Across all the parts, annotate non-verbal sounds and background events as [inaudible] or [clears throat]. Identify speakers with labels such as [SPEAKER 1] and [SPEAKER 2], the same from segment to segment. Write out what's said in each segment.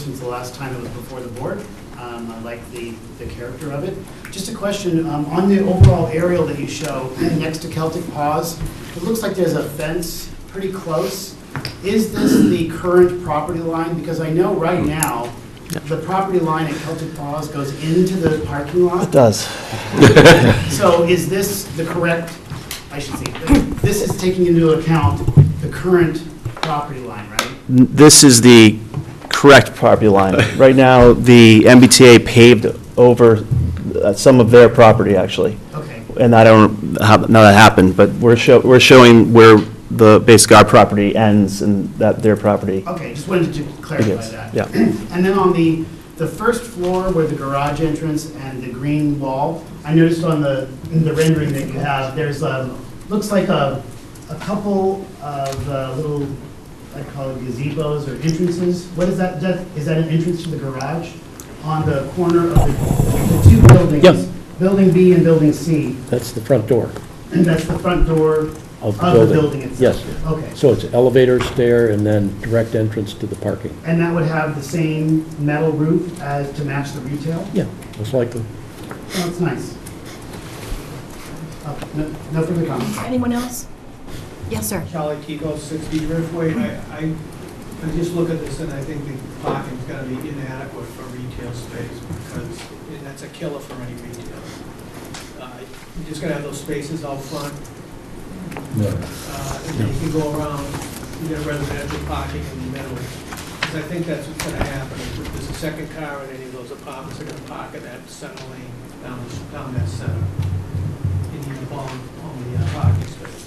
[SPEAKER 1] since the last time it was before the board. Um, I like the, the character of it. Just a question, um, on the overall aerial that you show, next to Celtic Paws, it looks like there's a fence pretty close. Is this the current property line? Because I know right now, the property line at Celtic Paws goes into the parking
[SPEAKER 2] It
[SPEAKER 1] lot.
[SPEAKER 2] does.
[SPEAKER 1] So is this the correct, I should say, this is taking into account the current property line, right?
[SPEAKER 2] N- This is the correct property line. Right now, the MBTA paved over uh, some of their property, actually,
[SPEAKER 1] Okay,
[SPEAKER 2] and I don't, know how how that happened, but we're show, we're showing where the, basically our property ends and that their property.
[SPEAKER 1] okay, just wanted to clarify
[SPEAKER 2] Yes,
[SPEAKER 1] that.
[SPEAKER 2] yeah.
[SPEAKER 1] [clears throat] And then on the, the first floor where the garage entrance and the green wall, I noticed on the, in the rendering that you have, there's a, looks like a, a couple of uh, little, I call it gazebos or entrances. What is that, that, is that an entrance to the garage on the corner of the, the two buildings?
[SPEAKER 3] Yeah.
[SPEAKER 1] Building B and Building C, [clears throat]
[SPEAKER 3] That's the front door
[SPEAKER 1] and that's the front door
[SPEAKER 3] of the
[SPEAKER 1] of the
[SPEAKER 3] building.
[SPEAKER 1] building itself?
[SPEAKER 3] Yes.
[SPEAKER 1] Okay.
[SPEAKER 3] So it's elevator, stair, and then direct entrance to the parking.
[SPEAKER 1] And that would have the same metal roof as to match the retail?
[SPEAKER 3] Yeah, most likely.
[SPEAKER 1] That's nice. Oh, No no further comments.
[SPEAKER 4] Anyone else? Yes, sir.
[SPEAKER 5] Charlie Kiko, 60 Driftway. I, I- I just look at this and I think the parking's gonna be inadequate for retail space because that's a killer for any retail. Uh, You're just gonna have those spaces out front. Uh, And then you can go around, you get residential parking in the middle. Because I think that's what's gonna happen. If there's a second car in any of those apartments, they're gonna park in that center lane down, down that center. And you involve only uh, parking spaces.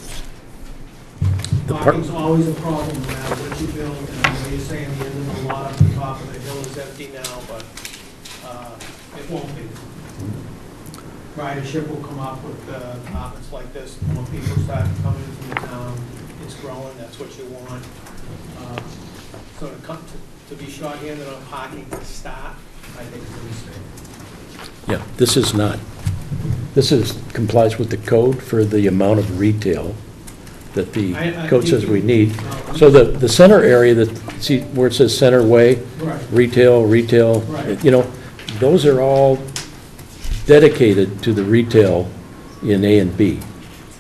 [SPEAKER 3] The par-
[SPEAKER 5] Parking's always a problem, no matter what you build, and I know you're saying the end of the lot up the top of the hill is empty now, but uh, it won't be. Ridership will come up with uh, apartments like this, more people start coming into the town, it's growing, that's what you want. Uh, So to come, to- to be shorthanded on parking to start, I think is a mistake.
[SPEAKER 3] Yeah, this is not, this is, complies with the code for the amount of retail that the
[SPEAKER 5] I- I-
[SPEAKER 3] code says we need.
[SPEAKER 5] No.
[SPEAKER 3] So the, the center area that, see where it says center way,
[SPEAKER 5] Right.
[SPEAKER 3] retail, retail,
[SPEAKER 5] Right.
[SPEAKER 3] you know, those are all dedicated to the retail in A and B.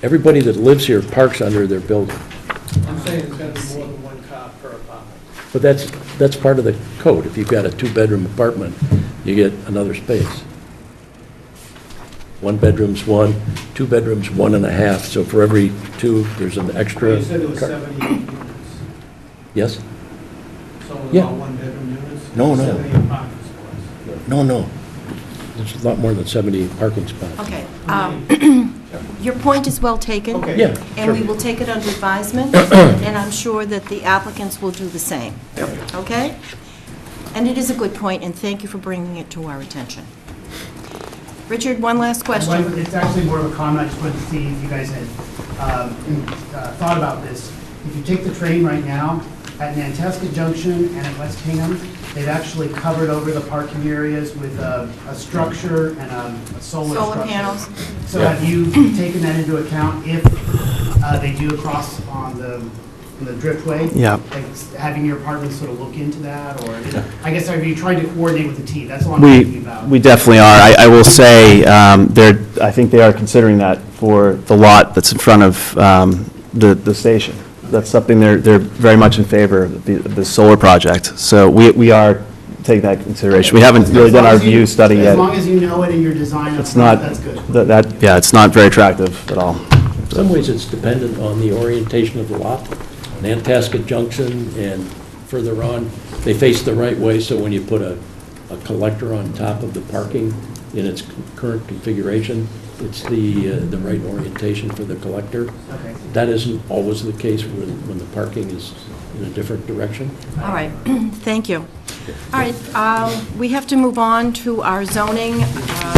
[SPEAKER 3] Everybody that lives here parks under their building,
[SPEAKER 5] I'm saying it's gonna be more than one car per apartment.
[SPEAKER 3] but that's, that's part of the code. If you've got a two-bedroom apartment, you get another space. One bedroom's one, two bedrooms, one and a half, so for every two, there's an extra.
[SPEAKER 5] You said there was
[SPEAKER 3] car-
[SPEAKER 5] 78 units.
[SPEAKER 3] Yes?
[SPEAKER 5] So it's
[SPEAKER 3] Yeah.
[SPEAKER 5] all one-bedroom units?
[SPEAKER 3] No, no.
[SPEAKER 5] Seventy apartments was.
[SPEAKER 3] No, no. There's a lot more than 70 parking spots.
[SPEAKER 4] Okay. um, Your point is well taken.
[SPEAKER 5] Okay.
[SPEAKER 3] Yeah,
[SPEAKER 4] And we
[SPEAKER 3] sure.
[SPEAKER 4] will take it
[SPEAKER 2] [clears throat]
[SPEAKER 4] under advisement, and I'm sure that the applicants will do the same. Okay? And it is a good point, and thank you for bringing it to our attention. Richard, one last
[SPEAKER 1] One-
[SPEAKER 4] question.
[SPEAKER 1] It's actually more of a comment, I just wanted to see if you guys had um, uh, thought about this. If you take the train right now, at Nantasket Junction and at West Hingham, they've actually covered over the parking areas with a a structure and a a solar
[SPEAKER 4] Solar
[SPEAKER 1] structure.
[SPEAKER 4] panels.
[SPEAKER 1] So have you taken that into account if uh, they do across on the, on the driftway?
[SPEAKER 2] Yeah.
[SPEAKER 1] Like s- having your apartment sort of look into that, or, I guess, have you tried to coordinate with the T? That's all I'm
[SPEAKER 2] We,
[SPEAKER 1] thinking about.
[SPEAKER 2] we definitely are. I, I will say, um, they're, I think they are considering that for the lot that's in front of, um, the, the station. That's something they're, they're very much in favor of, the, the solar project. So we, we are taking that into consideration. We haven't really
[SPEAKER 1] As
[SPEAKER 2] done
[SPEAKER 1] long
[SPEAKER 2] our
[SPEAKER 1] as you-
[SPEAKER 2] view study
[SPEAKER 1] As
[SPEAKER 2] yet.
[SPEAKER 1] long as you know it in your design, up
[SPEAKER 2] It's
[SPEAKER 1] front,
[SPEAKER 2] not,
[SPEAKER 1] that's good.
[SPEAKER 2] that, that- yeah, it's not very attractive at all.
[SPEAKER 3] In some ways, it's dependent on the orientation of the lot. Nantasket Junction and further on, they face the right way, so when you put a, a collector on top of the parking in its current configuration, it's the, uh, the right orientation for the collector.
[SPEAKER 1] Okay.
[SPEAKER 3] That isn't always the case when, when the parking is in a different direction.
[SPEAKER 4] All right, [clears throat] thank you. All right, um, we have to move on to our zoning. Uh,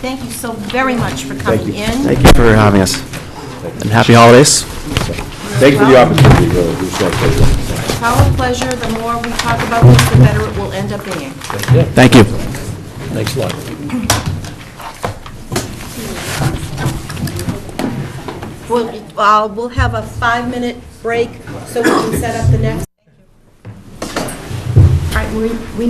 [SPEAKER 4] Thank you so very much for
[SPEAKER 2] Thank
[SPEAKER 4] coming
[SPEAKER 2] you.
[SPEAKER 4] in.
[SPEAKER 2] Thank you for having us. And happy holidays.
[SPEAKER 6] Thank you for the opportunity, really, we appreciate it.
[SPEAKER 4] It's our pleasure. The more we talk about this, the better it will end up being.
[SPEAKER 2] Thank you.
[SPEAKER 3] Thanks a lot.
[SPEAKER 4] We'll, uh, we'll have a five-minute break so we can set up the next. All right, we, we